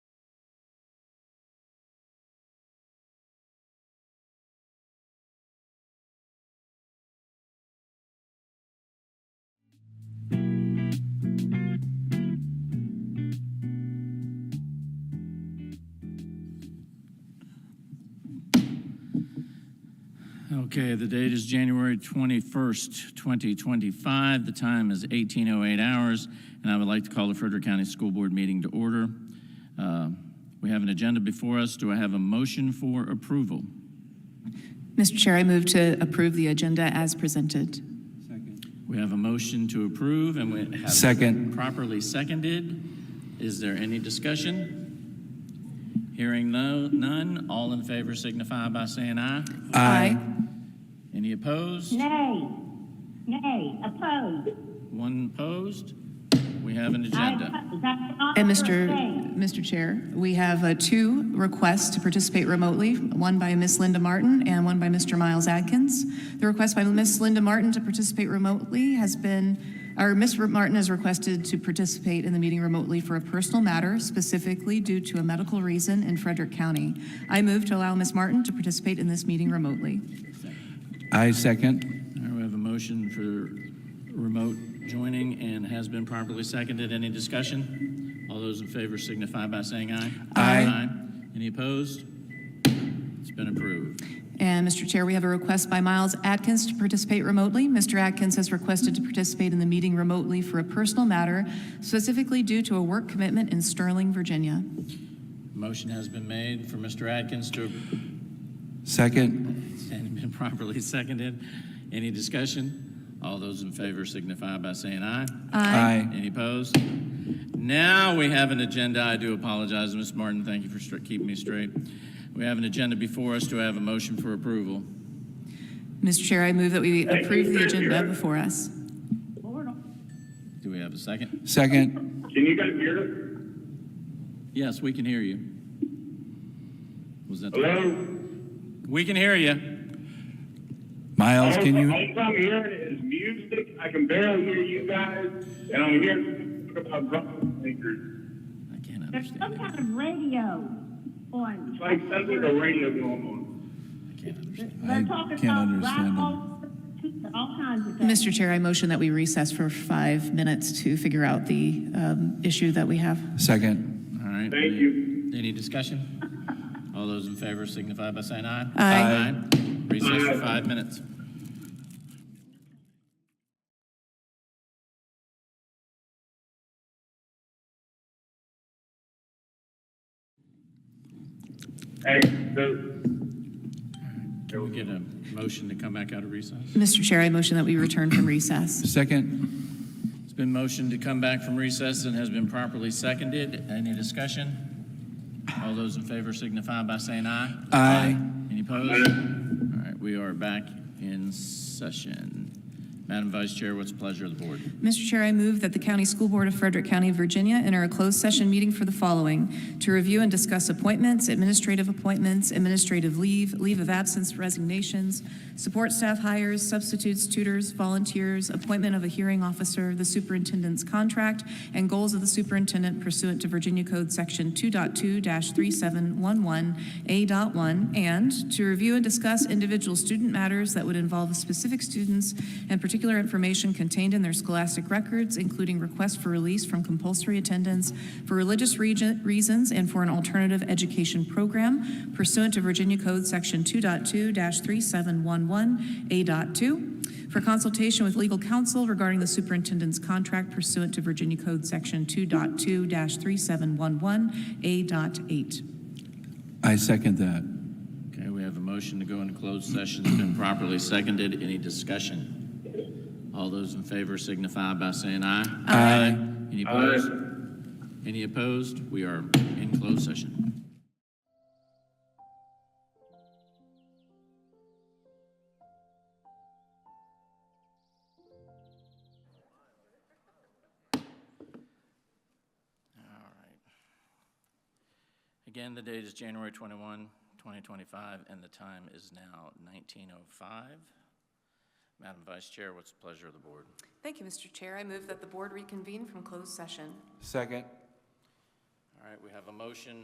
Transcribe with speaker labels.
Speaker 1: Okay, the date is January 21st, 2025. The time is 18:08 hours, and I would like to call the Frederick County School Board meeting to order. Uh, We have an agenda before us. Do I have a motion for approval?
Speaker 2: Mr. Chair, I move to approve the agenda as presented.
Speaker 1: We have a motion to approve, and we have.
Speaker 3: Second.
Speaker 1: Properly seconded. Is there any discussion? Hearing no, none, all in favor signify by saying aye.
Speaker 3: Aye.
Speaker 1: Any opposed?
Speaker 4: Nay. Nay, opposed.
Speaker 1: One opposed? We have an
Speaker 4: I
Speaker 1: agenda.
Speaker 4: oppose. That's not
Speaker 2: And
Speaker 4: first
Speaker 2: Mr.
Speaker 4: thing.
Speaker 2: Mr. Chair, we have uh, two requests to participate remotely, one by Ms. Linda Martin and one by Mr. Miles Adkins. The request by Ms. Linda Martin to participate remotely has been, or Ms. Martin has requested to participate in the meeting remotely for a personal matter, specifically due to a medical reason in Frederick County. I move to allow Ms. Martin to participate in this meeting remotely.
Speaker 3: I second.
Speaker 1: All right, we have a motion for remote joining and has been properly seconded. Any discussion? All those in favor signify by saying aye.
Speaker 3: Aye.
Speaker 1: Any opposed? It's been approved.
Speaker 2: And Mr. Chair, we have a request by Miles Atkins to participate remotely. Mr. Atkins has requested to participate in the meeting remotely for a personal matter, specifically due to a work commitment in Sterling, Virginia.
Speaker 1: Motion has been made for Mr. Atkins to,
Speaker 3: Second.
Speaker 1: and been properly seconded. Any discussion? All those in favor signify by saying aye.
Speaker 3: Aye.
Speaker 1: Any opposed? Now we have an agenda. I do apologize, Ms. Martin. Thank you for stra- keeping me straight. We have an agenda before us. Do I have a motion for approval?
Speaker 2: Mr. Chair, I move that we approve the agenda before us.
Speaker 4: Board,
Speaker 1: Do we have a second?
Speaker 3: Second.
Speaker 5: Can you guys hear us?
Speaker 1: Yes, we can hear you. Was that? the-
Speaker 5: Hello?
Speaker 1: We can hear you.
Speaker 3: Miles,
Speaker 5: all,
Speaker 3: can you?
Speaker 5: All I'm hearing is music. I can barely hear you guys, and I'm hearing talk about drum makers.
Speaker 1: I can't
Speaker 4: There's
Speaker 1: understand
Speaker 4: some
Speaker 1: it.
Speaker 4: kind of radio on.
Speaker 5: It's like sounds like a radio going on.
Speaker 1: I can't understand.
Speaker 4: They're talking
Speaker 3: can't
Speaker 4: about
Speaker 3: understand them.
Speaker 4: rattles, All kinds of things.
Speaker 2: Mr. Chair, I motion that we recess for five minutes to figure out the um, issue that we have.
Speaker 3: Second.
Speaker 1: All right.
Speaker 5: Thank
Speaker 1: any-
Speaker 5: you.
Speaker 1: Any discussion? All those in favor signify by saying aye.
Speaker 2: Aye.
Speaker 1: Aye. Recess for five minutes.
Speaker 5: Hey, the,
Speaker 1: Can we get a motion to come back out of recess?
Speaker 2: Mr. Chair, I motion that we return from recess.
Speaker 3: Second.
Speaker 1: It's been motioned to come back from recess and has been properly seconded. Any discussion? All those in favor signify by saying aye.
Speaker 3: Aye.
Speaker 1: Any opposed? All right, we are back in session. Madam Vice Chair, what's the pleasure of the board?
Speaker 2: Mr. Chair, I move that the County School Board of Frederick County, Virginia enter a closed session meeting for the following: to review and discuss appointments, administrative appointments, administrative leave, leave of absence resignations, support staff hires, substitutes, tutors, volunteers, appointment of a hearing officer, the superintendent's contract, and goals of the superintendent pursuant to Virginia Code Section 2.2-3711A.1, and to review and discuss individual student matters that would involve specific students and particular information contained in their scholastic records, including requests for release from compulsory attendance for religious region- reasons and for an alternative education program pursuant to Virginia Code Section 2.2-3711A.2, for consultation with legal counsel regarding the superintendent's contract pursuant to Virginia Code Section 2.2-3711A.8.
Speaker 3: I second that.
Speaker 1: Okay, we have a motion to go into closed session. It's been properly seconded. Any discussion? All those in favor signify by saying aye. Aye. Any opposed? Any opposed? We are in closed session. Again, the date is January 21, 2025, and the time is now 19:05. Madam Vice Chair, what's the pleasure of the board?
Speaker 2: Thank you, Mr. Chair. I move that the board reconvene from closed session.
Speaker 3: Second.
Speaker 1: All right, we have a motion